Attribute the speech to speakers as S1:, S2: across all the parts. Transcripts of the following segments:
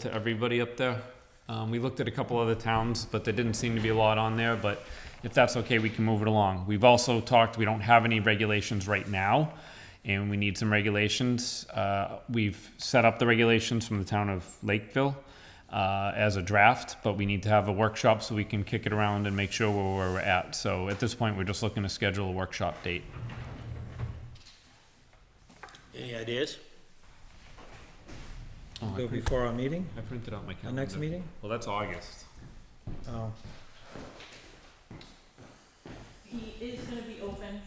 S1: to everybody up there. Um, we looked at a couple other towns, but there didn't seem to be a lot on there, but if that's okay, we can move it along. We've also talked, we don't have any regulations right now, and we need some regulations. Uh, we've set up the regulations from the town of Lakeville, uh, as a draft, but we need to have a workshop so we can kick it around and make sure where we're at. So at this point, we're just looking to schedule a workshop date.
S2: Any ideas?
S1: Oh, I
S3: Go
S1: print-
S3: before our meeting,
S1: I printed out my
S3: our
S1: calendar.
S3: next meeting?
S1: Well, that's August.
S3: Oh,
S4: He is gonna be open,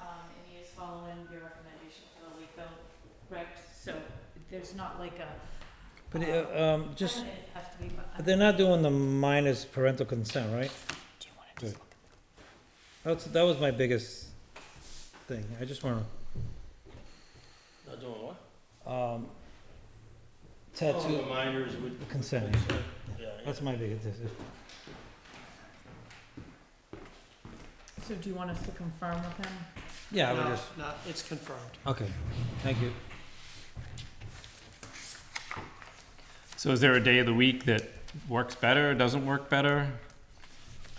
S4: um, and he is following your recommendation for the Lakeville rec, so there's not like a.
S3: but, uh, um, just,
S4: It has to be, but.
S3: but they're not doing the minus parental consent, right?
S4: Do you wanna just look?
S3: That's, that was my biggest thing, I just wanna,
S2: Not doing what?
S3: um,
S2: Oh,
S3: tattoo,
S2: the Minors would.
S3: Consent.
S2: Yeah, yeah.
S3: that's my biggest, if-
S4: So do you want us to confirm with him?
S3: yeah, I would just,
S5: No, it's confirmed.
S3: okay, thank you.
S1: So is there a day of the week that works better, doesn't work better?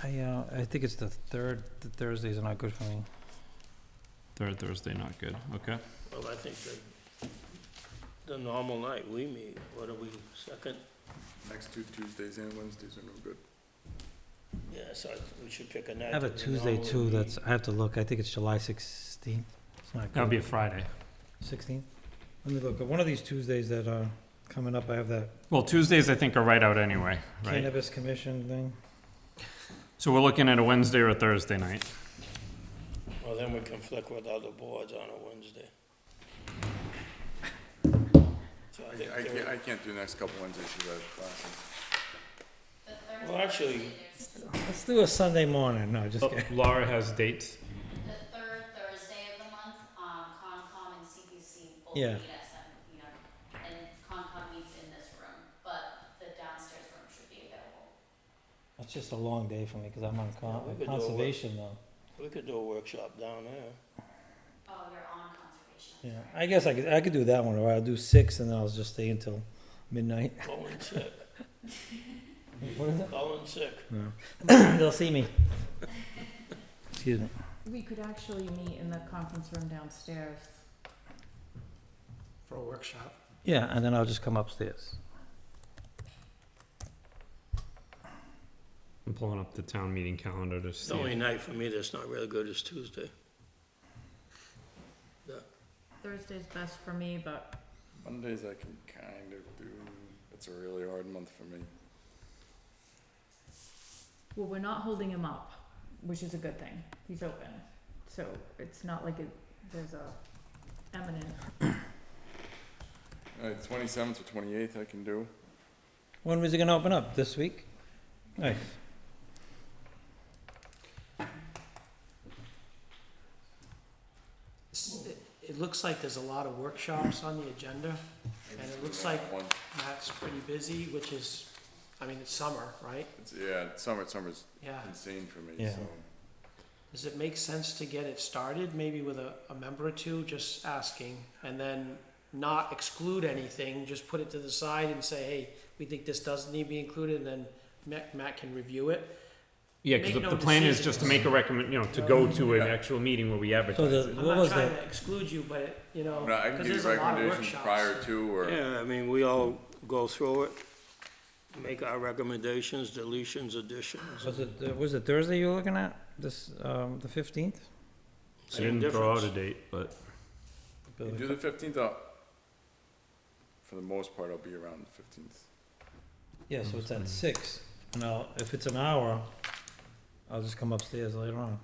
S3: I, uh, I think it's the third, the Thursdays are not good for me.
S1: Third Thursday, not good, okay.
S2: Well, I think the, the normal night we meet, what are we, second?
S6: Next two Tuesdays and Wednesdays are no good.
S2: Yeah, so I- we should pick a night.
S3: I have a
S2: that we
S3: Tuesday
S2: normally
S3: too,
S2: meet.
S3: that's, I have to look, I think it's July sixteenth, it's not good.
S1: That would be a Friday.
S3: Sixteenth? Let me look, one of these Tuesdays that are coming up, I have that
S1: Well, Tuesdays, I think, are right out anyway, right?
S3: cannabis commission thing.
S1: So we're looking at a Wednesday or a Thursday night.
S2: Well, then we conflict with other boards on a Wednesday. So I think
S6: I, I
S2: there-
S6: can't, I can't do the next couple Wednesdays because I have classes.
S2: Well, actually,
S3: Let's do a Sunday morning. No, just
S1: Oh,
S3: kidding.
S1: Laura has dates.
S7: The third Thursday of the month, um, Concom and CPC both
S3: Yeah.
S7: meet at seven P M. And Concom meets in this room, but the downstairs room should be available.
S3: It's just a long day for me because I'm on con-
S2: Yeah, we could do it.
S3: conservation though.
S2: we could do a workshop down there.
S7: Oh, you're on conservation.
S3: Yeah, I guess I could I could do that one, or I'll do six and then I'll just stay until midnight.
S2: Colin sick,
S3: What is it?
S2: Colin sick.
S3: They'll see me. Excuse me.
S4: We could actually meet in the conference room downstairs.
S5: For a workshop.
S3: Yeah, and then I'll just come upstairs.
S1: I'm pulling up the town meeting calendar to
S2: The only
S1: see.
S2: night for me that's not really good is Tuesday.
S4: Thursday's best for me, but
S6: Mondays I can kind of do, it's a really hard month for me.
S4: Well, we're not holding him up, which is a good thing. He's open. So it's not like it, there's a eminent.
S6: Alright, Uh, twenty-seventh or twenty-eighth I can do.
S3: When was it gonna open up? This week? Nice.
S5: S- it- It looks like there's a lot of workshops on the agenda.
S6: Maybe
S5: And it
S6: do
S5: looks
S6: that
S5: like-
S6: one.
S5: Matt's pretty busy, which is, I mean, it's summer, right?
S6: It's, yeah, summer, summer's
S5: Yeah.
S6: insane for me,
S3: Yeah.
S6: so.
S5: Does it make sense to get it started, maybe with a, a member or two, just asking? And then not exclude anything, just put it to the side and say, hey, we think this doesn't need to be included, and then Matt, Matt can review it.
S1: Yeah, because
S5: Make
S1: the
S5: no
S1: the plan is just to
S5: decisions.
S1: make a recommend, you know, to go to an actual meeting where we
S3: So
S1: advertise
S3: the
S1: it.
S5: I'm
S3: what
S5: not
S3: was
S5: trying
S3: that?
S5: to exclude you, but, you know,
S6: I mean, I can
S5: because
S6: give
S5: there's
S6: you
S5: a lot of
S6: recommendations
S5: workshops.
S6: prior to or
S2: Yeah, I mean, we all go through it, make our recommendations, deletions, additions.
S3: Was it uh, was it Thursday you were looking at? This um the fifteenth?
S1: I
S2: Same
S1: didn't throw out a
S2: difference.
S1: date, but
S6: You do the fifteenth up. For the most part, I'll be around the fifteenth.
S3: Yeah, so it's at six. Now, if it's an hour, I'll just come upstairs later on.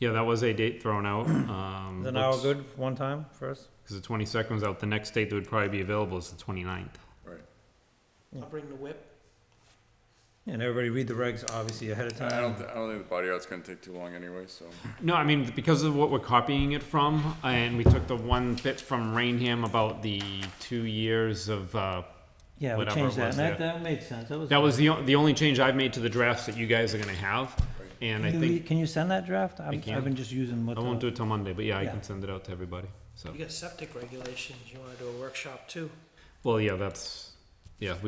S1: yeah, that was a date thrown out. Um,
S3: Is an hour
S1: let's-
S3: good one time first?
S1: Because the 22nd was out, the next date that would probably be available is the 29th.
S5: I'll bring the whip.
S3: And everybody read the regs obviously ahead of
S6: I
S3: time.
S6: I don't, thi- I don't think the body art's gonna take too long anyway, so.
S1: No, I mean, because of what we're copying it from, and we took the one bit from Rainham about the two years of, uh,
S3: Yeah, we
S1: whatever
S3: changed
S1: it
S3: that,
S1: was
S3: and that,
S1: there.
S3: that made sense, that was.
S1: that was the, o- the only change I've made to the drafts that you guys are gonna have. And I
S3: Can you re-
S1: think,
S3: Can you send that draft? I'm-
S1: can.
S3: I've been just using what.
S1: I won't do
S3: the-
S1: it till Monday, but yeah, I
S3: Yeah.
S1: can send it out to everybody, so.
S5: You got septic regulations, you wanna do a workshop too?
S1: Well, yeah, that's, yeah, we